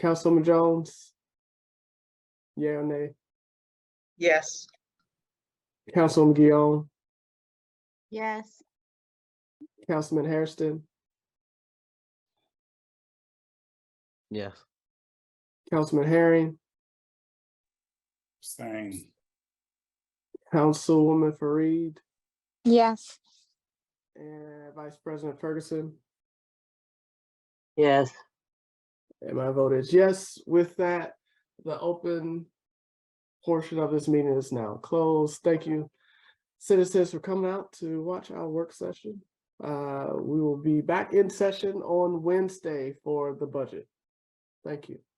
Councilman Jones? Yeah or nay? Yes. Councilman Guillaume, Yes. Councilman Hairston, Yes. Councilman Herring, Abstain. Councilwoman Fareed, Yes. and Vice President Ferguson. Yes. And my vote is yes. With that, the open portion of this meeting is now closed. Thank you, citizens, for coming out to watch our work session. Uh, we will be back in session on Wednesday for the budget. Thank you.